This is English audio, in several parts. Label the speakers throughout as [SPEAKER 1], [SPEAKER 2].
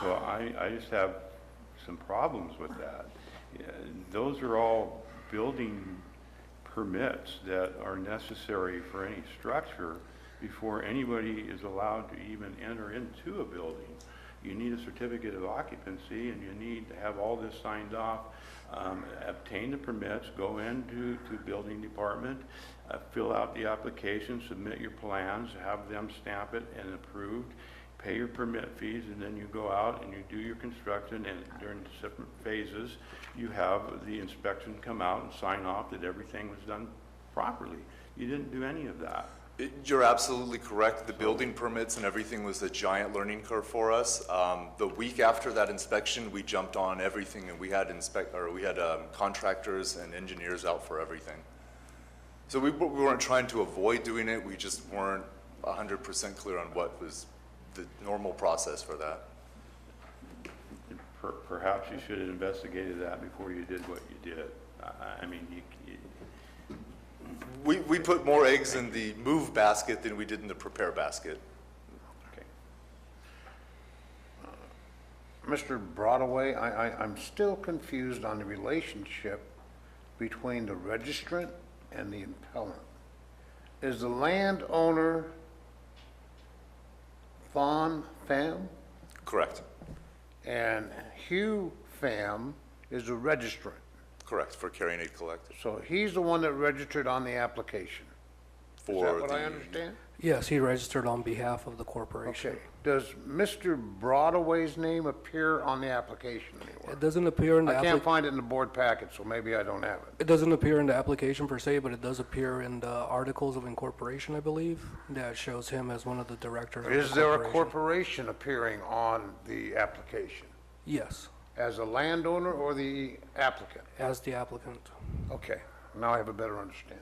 [SPEAKER 1] So I, I just have some problems with that. Yeah, Those are all building permits that are necessary for any structure before anybody is allowed to even enter into a building. You need a certificate of occupancy, and you need to have all this signed off, um, obtain the permits, go into, to building department, uh, fill out the application, submit your plans, have them stamp it and approved, pay your permit fees, and then you go out and you do your construction, and during the different phases, you have the inspection come out and sign off that everything was done properly. You didn't do any of that.
[SPEAKER 2] It- You're absolutely correct. The building permits and everything was a giant learning curve for us. Um, The week after that inspection, we jumped on everything and we had inspect, or we had um, contractors and engineers out for everything. So we w- we weren't trying to avoid doing it, we just weren't 100% clear on what was the normal process for that.
[SPEAKER 1] Per- Perhaps you should have investigated that before you did what you did. I, I mean, you- you,
[SPEAKER 2] We, we put more eggs in the move basket than we did in the prepare basket.
[SPEAKER 1] okay.
[SPEAKER 3] Mr. Broadway, I, I, I'm still confused on the relationship between the registrant and the impellant. Is the landowner Fawn Pham
[SPEAKER 2] Correct,
[SPEAKER 3] and Hugh Pham is the registrant?
[SPEAKER 2] correct, for carrying aid collected.
[SPEAKER 3] So he's the one that registered on the application. Is
[SPEAKER 2] For
[SPEAKER 3] that what I
[SPEAKER 2] the-
[SPEAKER 3] understand?
[SPEAKER 4] Yes, he registered on behalf of the corporation.
[SPEAKER 3] Okay. Does Mr. Broadway's name appear on the application anywhere?
[SPEAKER 4] It doesn't appear in the,
[SPEAKER 3] I can't
[SPEAKER 4] applic-
[SPEAKER 3] find it in the board packet, so maybe I don't have it.
[SPEAKER 4] it doesn't appear in the application per se, but it does appear in the articles of incorporation, I believe, that shows him as one of the directors. of the
[SPEAKER 3] Is there a
[SPEAKER 4] corporation.
[SPEAKER 3] corporation appearing on the application
[SPEAKER 4] Yes,
[SPEAKER 3] as a landowner or the applicant?
[SPEAKER 4] as the applicant.
[SPEAKER 3] Okay, now I have a better understanding.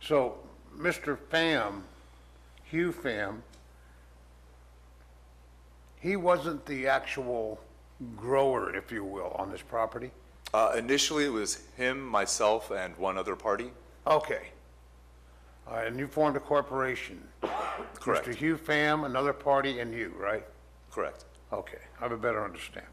[SPEAKER 3] So, Mr. Pham, Hugh Pham, he wasn't the actual grower, if you will, on this property?
[SPEAKER 2] Uh, initially, it was him, myself, and one other party.
[SPEAKER 3] Okay. All right, and you formed a corporation?
[SPEAKER 2] Correct.
[SPEAKER 3] Mr. Hugh Pham, another party, and you, right?
[SPEAKER 2] Correct.
[SPEAKER 3] Okay, I have a better understanding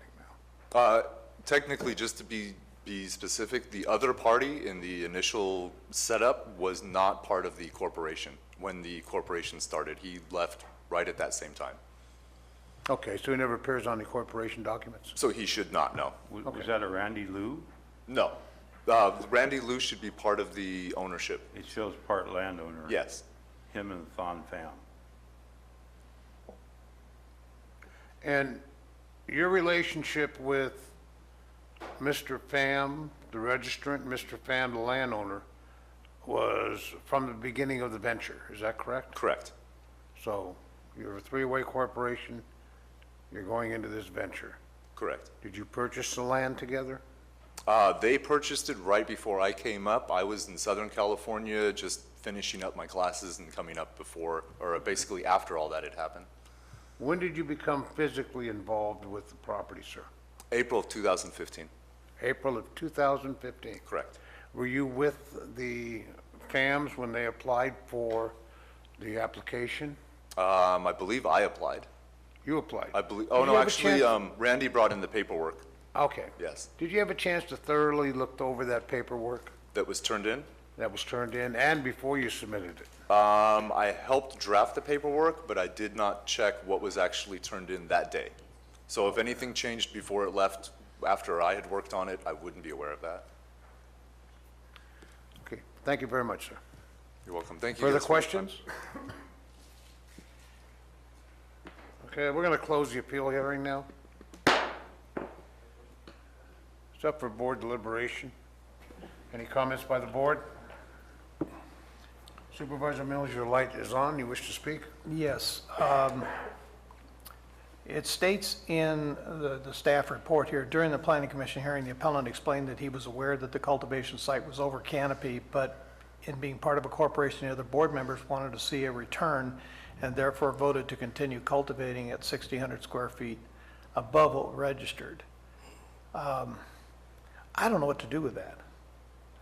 [SPEAKER 3] now.
[SPEAKER 2] Uh, technically, just to be be specific, the other party in the initial setup was not part of the corporation when the corporation started. He left right at that same time,
[SPEAKER 3] Okay, so he never appears on the corporation documents?
[SPEAKER 2] so he should not know.
[SPEAKER 1] Was was that a Randy Lou?
[SPEAKER 2] No, uh, Randy Lou should be part of the ownership.
[SPEAKER 1] It shows part landowner.
[SPEAKER 2] Yes,
[SPEAKER 1] Him and Thon Pham.
[SPEAKER 3] And your relationship with Mr. Pham, the registrant, Mr. Pham, the landowner, was from the beginning of the venture, is that correct?
[SPEAKER 2] correct,
[SPEAKER 3] So you're a three-way corporation, you're going into this venture.
[SPEAKER 2] correct.
[SPEAKER 3] Did you purchase the land together?
[SPEAKER 2] Uh, they purchased it right before I came up. I was in Southern California, just finishing up my classes and coming up before, or basically after all that had happened.
[SPEAKER 3] When did you become physically involved with the property, sir?
[SPEAKER 2] April of 2015,
[SPEAKER 3] April of 2015?
[SPEAKER 2] correct.
[SPEAKER 3] Were you with the FAMs when they applied for the application?
[SPEAKER 2] Um, I believe I applied.
[SPEAKER 3] You applied.
[SPEAKER 2] I believe, oh
[SPEAKER 3] Did
[SPEAKER 2] no,
[SPEAKER 3] you have a
[SPEAKER 2] actually,
[SPEAKER 3] chance-
[SPEAKER 2] um, Randy brought in the paperwork
[SPEAKER 3] Okay.
[SPEAKER 2] yes.
[SPEAKER 3] Did you have a chance to thoroughly look over that paperwork
[SPEAKER 2] that was turned in.
[SPEAKER 3] that was turned in and before you submitted it?
[SPEAKER 2] Um, I helped draft the paperwork, but I did not check what was actually turned in that day. So if anything changed before it left, after I had worked on it, I wouldn't be aware of that.
[SPEAKER 3] Okay, thank you very much, sir.
[SPEAKER 2] You're welcome. Thank you.
[SPEAKER 3] Further
[SPEAKER 2] guys for your time.
[SPEAKER 3] questions? Okay, we're going to close the appeal hearing now. It's up for board deliberation. Any comments by the board? Supervisor Mills, your light is on. You wish to speak?
[SPEAKER 5] Yes. um, It states in the, the staff report here, during the planning commission hearing, the appellant explained that he was aware that the cultivation site was over canopy, but in being part of a corporation, the other board members wanted to see a return and therefore voted to continue cultivating at 1,600 square feet above what registered. Um, I don't know what to do with that.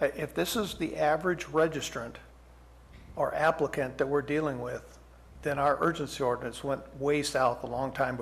[SPEAKER 5] Uh, If this is the average registrant, or applicant that we're dealing with, then our urgency ordinance went way south a long time